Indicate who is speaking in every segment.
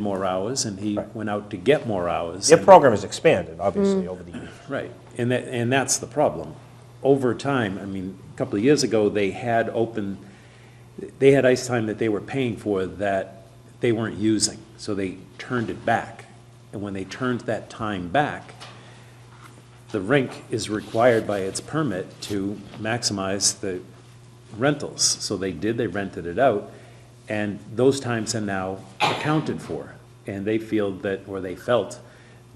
Speaker 1: more hours, and he went out to get more hours.
Speaker 2: Their
Speaker 1: and-
Speaker 2: program has expanded, obviously, over the years.
Speaker 1: Right, and that, and that's the problem. Over time, I mean, a couple of years ago, they had open, they had ice time that they were paying for that they weren't using, so they turned it back. And when they turned that time back, the rink is required by its permit to maximize the rentals. So they did, they rented it out, and those times are now accounted for. And they feel that, or they felt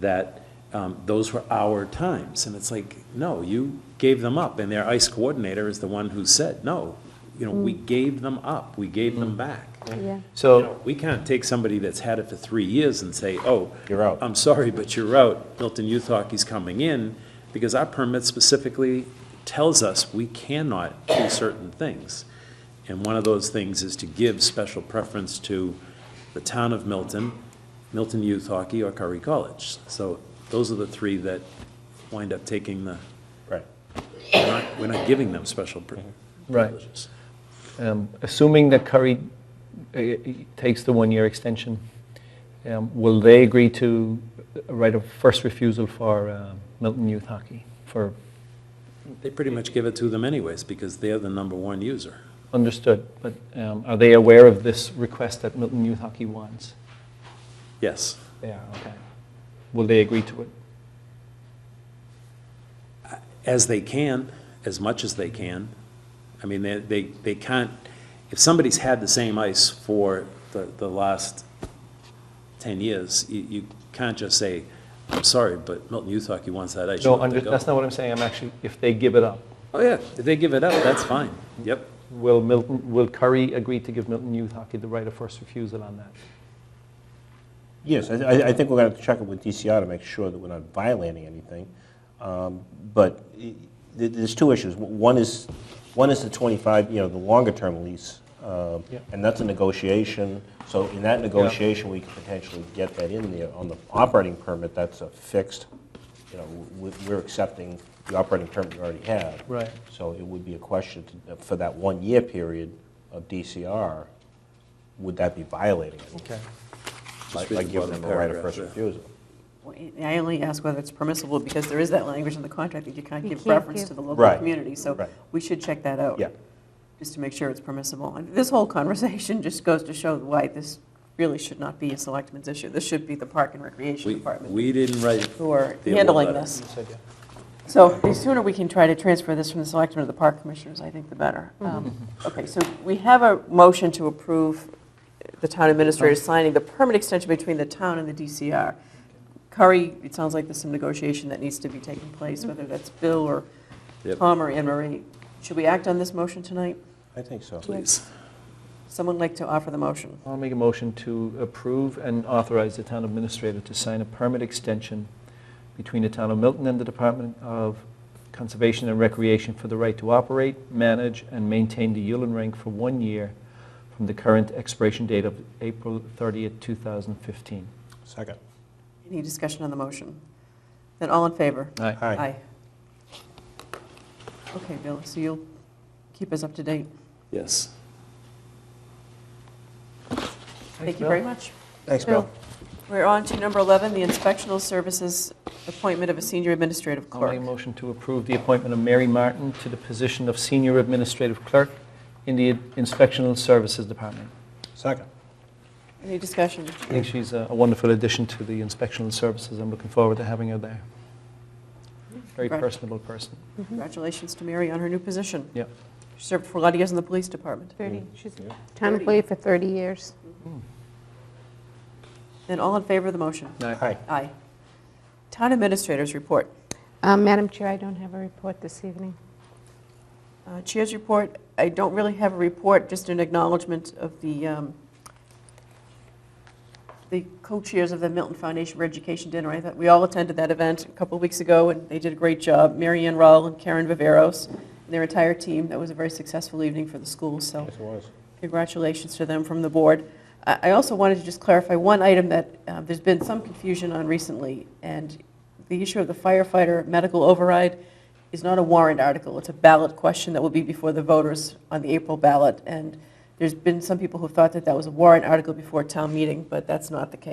Speaker 1: that um, those were our times. And it's like, no, you gave them up. And their ICE coordinator is the one who said, no, you know, we gave them up, we gave them back.
Speaker 3: Yeah.
Speaker 1: You
Speaker 2: So,
Speaker 1: know, We can't take somebody that's had it for three years and say, oh.
Speaker 2: You're out.
Speaker 1: I'm sorry, but you're out. Milton Youth Hockey's coming in, because our permit specifically tells us we cannot do certain things. And one of those things is to give special preference to the town of Milton, Milton Youth Hockey, or Curry College. So those are the three that wind up taking the,
Speaker 2: right.
Speaker 1: we're not, we're not giving them special pri-
Speaker 4: Right.
Speaker 1: privileges.
Speaker 4: Um, Assuming that Curry uh, takes the one-year extension, um, will they agree to a right of first refusal for um, Milton Youth Hockey? For,
Speaker 1: They pretty much give it to them anyways, because they're the number one user.
Speaker 4: understood, but um, are they aware of this request that Milton Youth Hockey wants?
Speaker 1: Yes.
Speaker 4: They are, okay. Will they agree to it?
Speaker 1: as they can, as much as they can. I mean, they, they, they can't, if somebody's had the same ice for the, the last ten years, you, you can't just say, I'm sorry, but Milton Youth Hockey wants that ice. you
Speaker 4: No,
Speaker 1: have to
Speaker 4: under-
Speaker 1: go."
Speaker 4: that's not what I'm saying, I'm actually, if they give it up,
Speaker 1: Oh, yeah, if they give it up, that's fine, yep.
Speaker 4: will Milton, will Curry agree to give Milton Youth Hockey the right of first refusal on that?
Speaker 2: Yes, I- I, I think we're going to check it with DCR to make sure that we're not violating anything. Um, But i- th- there's two issues. One is, one is the 25, you know, the longer-term lease, um,
Speaker 4: Yeah.
Speaker 2: and that's a negotiation. So in that negotiation, we could potentially get that in there. On the operating permit, that's a fixed, you know, we- we're accepting the operating permit we already have.
Speaker 4: Right.
Speaker 2: So it would be a question to- for that one-year period of DCR, would that be violating it?
Speaker 4: Okay.
Speaker 2: By
Speaker 1: Just read
Speaker 2: by
Speaker 1: the
Speaker 2: giving
Speaker 1: bottom
Speaker 2: them the right of
Speaker 1: paragraph
Speaker 2: first
Speaker 1: there.
Speaker 2: refusal.
Speaker 5: I only ask whether it's permissible because there is that language in the contract that you can't
Speaker 3: You
Speaker 5: give
Speaker 3: can't
Speaker 5: reference
Speaker 3: give-
Speaker 5: to the local
Speaker 2: Right.
Speaker 5: community. So
Speaker 2: Right.
Speaker 5: we should check that out.
Speaker 2: Yeah.
Speaker 5: Just to make sure it's permissible. And this whole conversation just goes to show why this really should not be a selectmen's issue. This should be the Park and Recreation
Speaker 1: We,
Speaker 5: Department
Speaker 1: we didn't write,
Speaker 5: who are
Speaker 1: Deal with
Speaker 5: handling
Speaker 1: that.
Speaker 5: this. So the sooner we can try to transfer this from the selectmen to the park commissioners, I think the better.
Speaker 3: Mm-hmm.
Speaker 5: Um, Okay, so we have a motion to approve the town administrator signing the permit extension between the town and the DCR. Curry, it sounds like there's some negotiation that needs to be taking place, whether that's Bill or
Speaker 1: Yep.
Speaker 5: Tom or Anne Marie. Should we act on this motion tonight?
Speaker 2: I think so.
Speaker 1: please.
Speaker 5: Someone like to offer the motion?
Speaker 4: I'll make a motion to approve and authorize the town administrator to sign a permit extension between the town of Milton and the Department of Conservation and Recreation for the right to operate, manage, and maintain the Yulin Rink for one year from the current expiration date of April 30th, 2015.
Speaker 2: Second.
Speaker 5: Any discussion on the motion? Then all in favor?
Speaker 4: Aye.
Speaker 2: Hi.
Speaker 5: Okay, Bill, so you'll keep us up to date.
Speaker 1: Yes.
Speaker 5: Thank you very much.
Speaker 2: Thanks,
Speaker 5: Bill. We're on to number 11, the inspectional services appointment of a senior administrative
Speaker 4: I'll make a
Speaker 5: clerk.
Speaker 4: motion to approve the appointment of Mary Martin to the position of Senior Administrative Clerk in the Inspectional Services Department.
Speaker 2: Second.
Speaker 5: Any discussion?
Speaker 4: I think she's a a wonderful addition to the inspectional services. I'm looking forward to having her there. Very
Speaker 5: Right.
Speaker 4: personable person.
Speaker 3: Mm-hmm.
Speaker 5: Congratulations to Mary on her new position.
Speaker 4: Yep.
Speaker 5: She served for a lot of years in the police department.
Speaker 3: 30, she's town employee for 30 years.
Speaker 5: Then all in favor of the motion?
Speaker 2: Hi.
Speaker 5: Aye. Town administrators report.
Speaker 3: Uh, Madam Chair, I don't have a report this evening.
Speaker 5: Uh, Chair's report, I don't really have a report, just an acknowledgement of the, um, the co-chairs of the Milton Foundation for Education Dinner. I thought, we all attended that event a couple of weeks ago, and they did a great job. Mary Ann Rull and Karen Viveros, and their entire team. That was a very successful evening for the school, so
Speaker 2: Yes, it was.
Speaker 5: congratulations to them from the board. I I also wanted to just clarify one item that uh, there's been some confusion on recently, and the issue of the firefighter medical override is not a warrant article, it's a ballot question that will be before the voters on the April ballot, and there's been some people who thought that that was a warrant article before town meeting, but that's not the case.